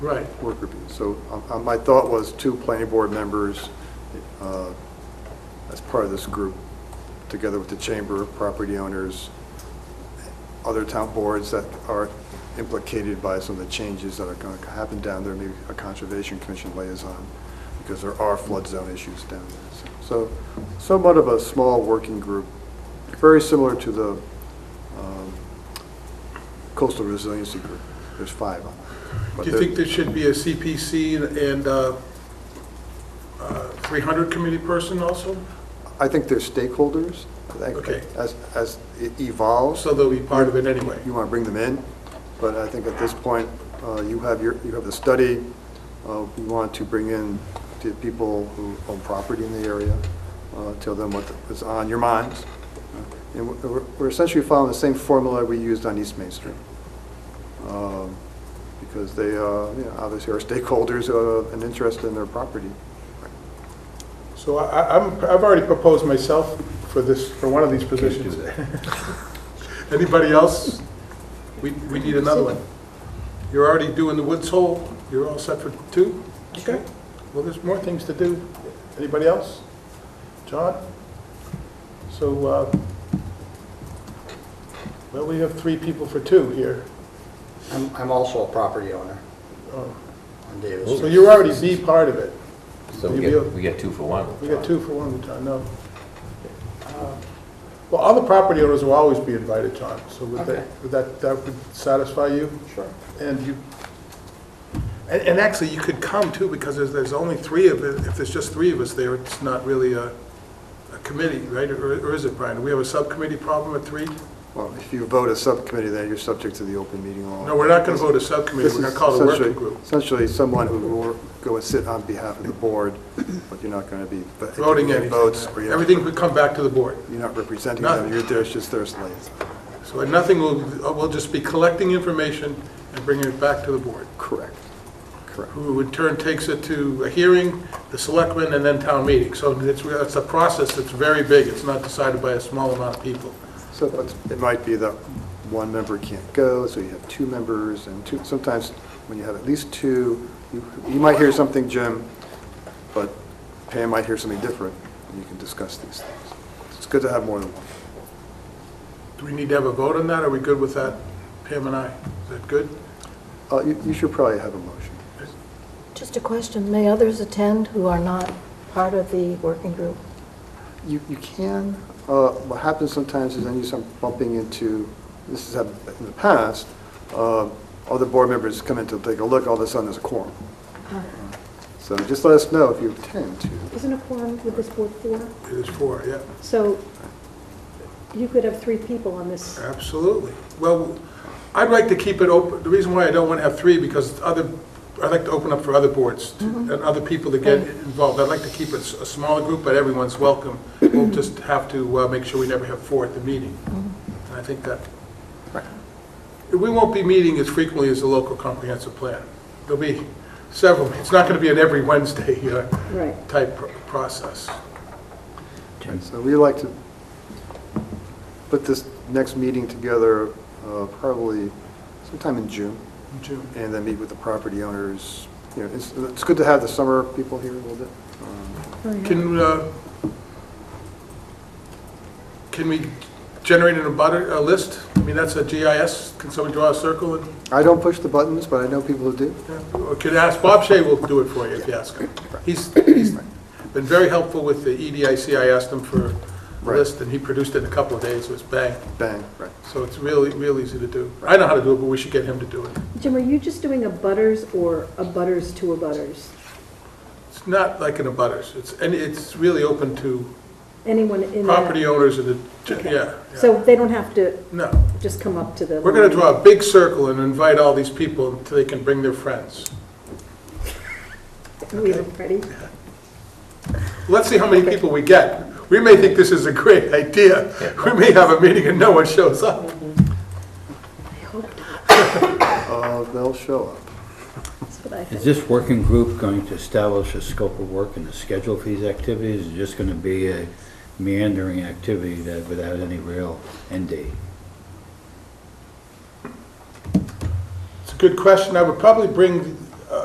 Right. work review. So uh, uh, my thought was two planning board members uh, as part of this group, together with the chamber, property owners, other town boards that are implicated by some of the changes that are going to happen down there, maybe a conservation commission liaison, because there are flood zone issues down there. So somewhat of a small working group, very similar to the um, coastal resiliency group. There's five on it. but Do you they're- think there should be a CPC and uh, uh, 300 committee person also? I think they're stakeholders. I think Okay. As, as it evolves, So they'll be part of it anyway? you want to bring them in, but I think at this point, uh, you have your, you have the study. Uh, You want to bring in the people who own property in the area, uh, tell them what is on your minds. And we're- we're we're essentially following the same formula we used on East Main Street. Um, Because they, uh, you know, obviously are stakeholders of an interest in their property. So I- I- I'm, I've already proposed myself for this, for one of these positions. Anybody else? We, we need another one. You're already doing the Woods Hole, you're all set for two? Okay. Well, there's more things to do. Anybody else? John? So, uh, well, we have three people for two here. I'm, I'm also a property owner Oh, on Davis. So you already be part of it. So You we get, be- we get two for one. We got two for one, John, no. Uh, Well, all the property owners will always be invited, John, so would Okay. that, would that, that would satisfy you? Sure. And you, and, and actually, you could come too, because there's, there's only three of, it. if there's just three of us there, it's not really a, a committee, right? Or, or is it, Brian? Do we have a subcommittee problem at three? Well, if you vote a subcommittee, then you're subject to the open meeting law. No, we're not gonna vote a subcommittee, This we're gonna is call it a working essentially- group. Essentially, someone who will go and sit on behalf of the board, but you're not going to be. but it can Voting be anything. Votes, but you're Everything not- would come back to the board. you're not representing Nothing. them, you're there, it's just their slates. So nothing will, we'll just be collecting information and bringing it back to the board. Correct, correct. who in turn takes it to a hearing, the selectmen, and then town meeting. So it's, it's a process that's very big, it's not decided by a small amount of people. So but it might be that one member can't go, so you have two members, and two, sometimes when you have at least two, you you might hear something, Jim, but Pam might hear something different, and you can discuss these things. It's good to have more than one. Do we need to have a vote on that, are we good with that, Pam and I? Is that good? Uh, You you should probably have a motion. Just a question, may others attend who are not part of the working group? You, you can, uh, what happens sometimes is then you start bumping into, this has happened in the past, uh, other board members come in to take a look, all of a sudden there's a quorum. So just let us know if you intend to. Isn't a quorum with this board four? It is four, yeah, So you could have three people on this. absolutely. Well, I'd like to keep it open, the reason why I don't want to have three, because other, I'd like to open up for other boards to- and other people to get involved. I'd like to keep it s- a smaller group, but everyone's welcome. We'll just have to uh, make sure we never have four at the meeting. And I think that We won't be meeting as frequently as the local comprehensive plan. There'll be several, it's not going to be an every Wednesday uh, Right. type pro- process. So we like to put this next meeting together uh, probably sometime in June, June. and then meet with the property owners. You know, it's, it's good to have the summer people here a little bit. Um, Can, uh, can we generate an abutter, a list? I mean, that's a GIS, can somebody draw a circle? and I don't push the buttons, but I know people who do. yeah, Or could ask, Bob Shea will do it for you if you ask him. He's, he's been very helpful with the EDIC, I asked him for a Right. list, and he produced it in a couple of days, it was bang. Bang, right. So it's really, real easy to do. I know how to do it, but we should get him to do it. Jim, are you just doing a butters or a butters to a butters? It's not like in a butters, it's, and it's really open to Anyone in that? property owners and the, Okay. yeah. yeah. So they don't have to No, just come up to the. we're gonna draw a big circle and invite all these people until they can bring their friends. We are ready? Let's see how many people we get. We may think this is a great idea, we may have a meeting and no one shows up. I hope not. Uh, They'll show up. That's what I Is think. this working group going to establish a scope of work and a schedule for these activities? Is it just going to be a meandering activity that, without any real end date? It's a good question. I would probably bring